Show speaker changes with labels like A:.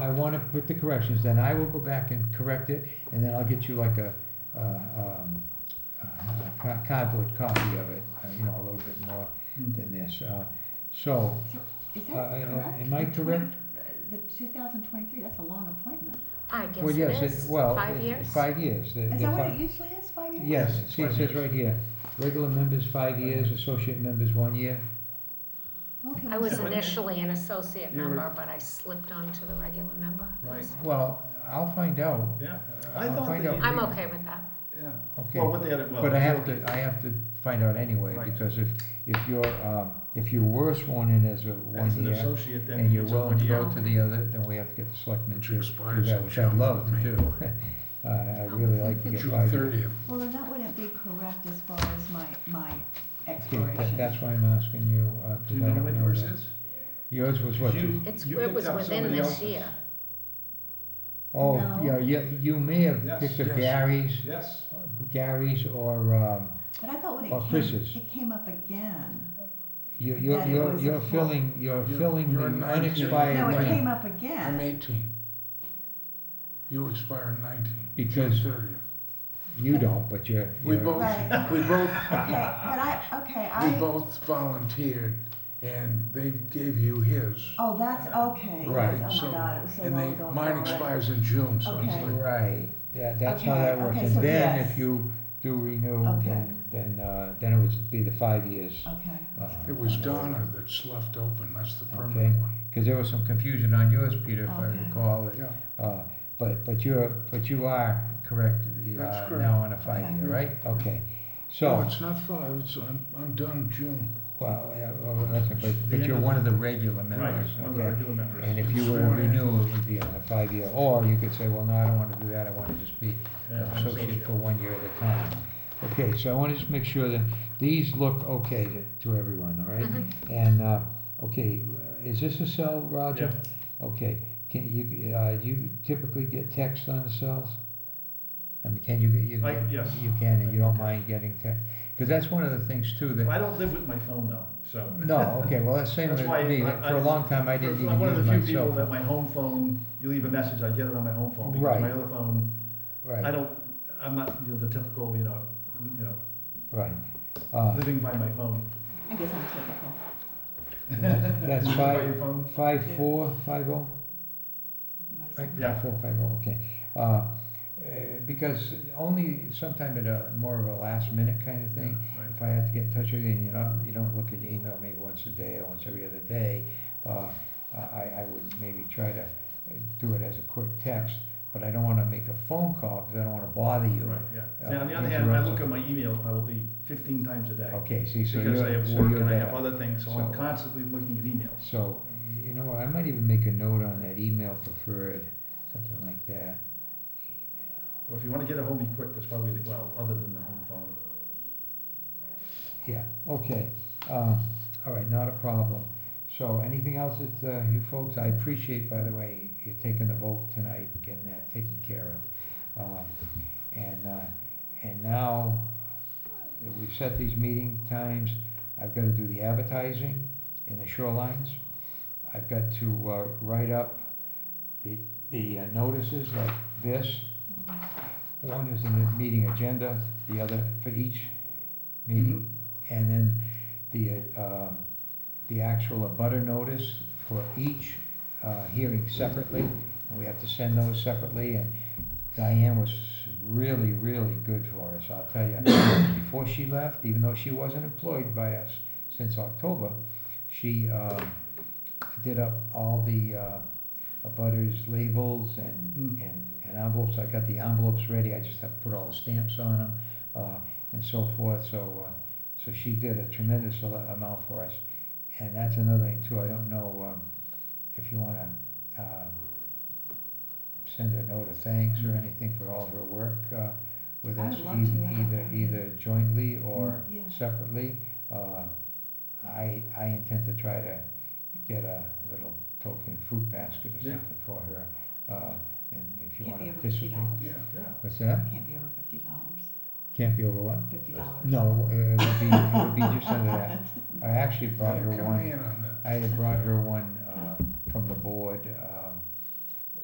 A: want to put the corrections, then I will go back and correct it, and then I'll get you like a, uh, um, a co- cardboard copy of it, uh, you know, a little bit more than this. Uh, So,
B: Is that
A: Uh, uh,
B: correct?
A: am I
B: The
A: correct?
B: twen- The two thousand twenty-three, that's a long appointment.
C: I guess
A: well, yes,
C: it
A: it-
C: is.
A: well,
C: Five
A: it-
C: years?
A: Five years. The-
B: Is
A: the
B: that what
A: fi-
B: it usually is, five years?
A: Yes, see, it
D: Five
A: says
D: years.
A: right here, regular members five years, associate members one year.
B: Okay,
C: I
B: well,
C: was
B: so-
C: initially an associate
D: You were-
C: member, but I slipped onto the regular member.
D: Right.
C: list.
A: Well, I'll find out.
D: Yeah,
A: Uh,
D: I
A: I'll
D: thought
A: find
D: that
A: out.
D: you-
C: I'm okay with that.
D: yeah.
A: Okay.
D: Well, what they had, well.
A: But I have
D: okay.
A: to, I have to find out anyway,
D: Right.
A: because if, if you're, um, if you were sworn in as a
D: As
A: one
D: an
A: year,
D: associate, then.
A: and you're
D: it's a
A: willing to go
D: one-year.
A: to the other, then we have to get the selectmen
E: Which
A: to do
E: expires
A: that,
E: in
A: which I'd
E: June,
A: love to
E: May.
A: do. Uh, I really like to get
E: June
A: five years.
E: thirtieth.
B: well, then that wouldn't be correct as far as my, my
A: Okay, that-
B: exploration.
A: That's why I'm asking you, uh,
D: Do you
A: 'cause I
D: know
A: don't
D: when
A: know
D: yours
A: that.
D: is?
A: Yours was what,
D: You-
C: It's,
D: you
C: it
D: picked
C: was
D: up
C: within
D: somebody
C: this
D: else's.
C: year.
A: Oh,
B: No.
A: yeah, yeah, you may have
D: Yes,
A: picked up
E: yes.
A: Gary's,
D: Yes,
A: Gary's or, um,
B: But I thought when
A: Well,
B: it
A: Chris's.
B: came, it came up again.
A: you- you're,
B: That it
A: you're,
B: was
A: you're
B: full.
A: filling, you're
E: You're-
A: filling
E: you're
A: the
E: not-
A: unexpired.
B: No, it
A: term.
E: Right.
B: came up
E: I'm
B: again.
E: eighteen. You expire in nineteen.
A: Because-
E: Thirtieth.
A: You don't, but you're.
E: We
A: you're-
E: both,
B: Right.
E: we both,
B: Okay, but I, okay,
E: we
B: I,
E: both volunteered and they gave you his.
B: oh, that's, okay.
A: Right,
B: yes, Oh
E: so-
B: my God, it was so
E: And
B: long
E: they,
B: ago.
E: mine
B: already.
E: expires in June, so it's
B: Okay.
E: like,
A: Right, yeah, that's how
B: Okay,
A: that works.
B: okay,
A: And
B: so
A: then
B: yes.
A: if you do renew,
B: Okay.
A: then, then, uh, then it would be the five years.
B: Okay.
A: uh,
E: it was Donna that's left open, that's the
A: Okay.
E: permanent one.
A: Cause there was some confusion on yours, Peter, if I
B: Okay.
A: recall. it.
E: Yeah,
A: Uh, but, but you're, but you are correct,
E: That's
A: uh,
E: correct.
A: now on a five year,
E: Okay.
A: right? Okay,
E: no,
A: so,
E: it's not five, it's, I'm, I'm done June.
A: well, yeah, well, that's, but, but
D: end
A: you're
D: of
A: one of the regular
D: right,
A: members,
D: one of the
A: okay?
D: regular members.
A: And if you were to
E: Sworn in.
A: renew, it would be on a five year, or you could say, well, no, I don't wanna do that, I wanna just be
D: Yeah,
A: an
D: I'm
A: associate for one year at a time. Okay, so I want to just make sure that these look okay to, to everyone, all right? And, uh, okay, is this a cell, Roger? Okay, can you, uh, do you typically get texts on the cells? I mean, can you, get- you,
D: I-
A: get-
D: yes.
A: you can, and you don't mind getting text? Because that's one of the things too that,
D: I don't live with my phone though, so.
A: no, okay, well, that's same
D: That's
A: with
D: why
A: me,
D: I-
A: for a
D: I-
A: long time, I didn't even use
D: I'm
A: my
D: one
A: cell
D: of the
A: phone.
D: few people that my home phone, you leave a message, I get it on my home phone, because
A: Right.
D: my other phone,
A: Right.
D: I don't, I'm not, you know, the typical, you know, you know,
A: Right. Uh,
D: living by my phone.
B: I guess I'm typical.
A: That's
D: Living by your
A: five,
D: phone.
A: five, four, five, oh? Right,
D: Yeah.
A: Four, five, oh, okay. Uh, uh, Because only sometime at a, more of a last minute kind of thing,
D: Right.
A: if I have to get in touch with you and you don't, you don't look at your email maybe once a day or once every other day, uh, I, I would maybe try to uh, do it as a quick text, but I don't wanna make a phone call, cause I don't wanna bother you.
D: Right, yeah.
A: Uh,
D: Now, on the other hand, I
A: interrupt
D: look at
A: them.
D: my email probably fifteen times a day.
A: Okay, see, so
D: Because I
A: you're,
D: have
A: so
D: work
A: you're
D: and I
A: better.
D: have other things, so I'm
A: So-
D: constantly looking at emails.
A: So, you know, what, I might even make a note on that email preferred, something like that.
D: Well, if you wanna get it home, be quick, that's probably, the- well, other than the home phone.
A: Yeah, okay. Uh, all right, not a problem. So, anything else that uh, you folks, I appreciate, by the way, you taking the vote tonight, and getting that taken care of. Uh, and, uh, and now that we've set these meeting times, I've got to do the advertising in the shorelines. I've got to uh, write up the, the uh, notices like this. One is in the meeting agenda, the other for each meeting. And then the, uh, um, the actual abutter notice for each uh, hearing separately. And we have to send those separately. And Diane was really, really good for us, I'll tell you. Before she left, even though she wasn't employed by us since October, she um, did up all the uh, abutters labels and,
D: Mm.
A: and and envelopes. I got the envelopes ready, I just have to put all the stamps on them uh, and so forth. So, uh, so she did a tremendous al- amount for us. And that's another thing too, I don't know um, if you want to send her a note of thanks or anything for all her work uh, with
B: Mm-hmm. I
A: us,
B: would love to,
A: eith-
B: yeah.
A: either, either jointly or
B: Mm, yeah.
A: separately. Uh, I, I intend to try to get a little token fruit basket or
D: Yeah.
A: something for her. uh, And if you
B: Can't
A: want
B: be
A: to
B: over fifty
A: participate.
B: dollars.
E: Yeah,
D: Yeah.
A: What's that?
B: Can't be over fifty dollars.
A: Can't be over what?
B: Fifty dollars.
A: No, uh, it would be, it would be just under that. I actually brought her
E: come
A: one,
E: in on that.
A: I had brought her one, uh, from the board, uh,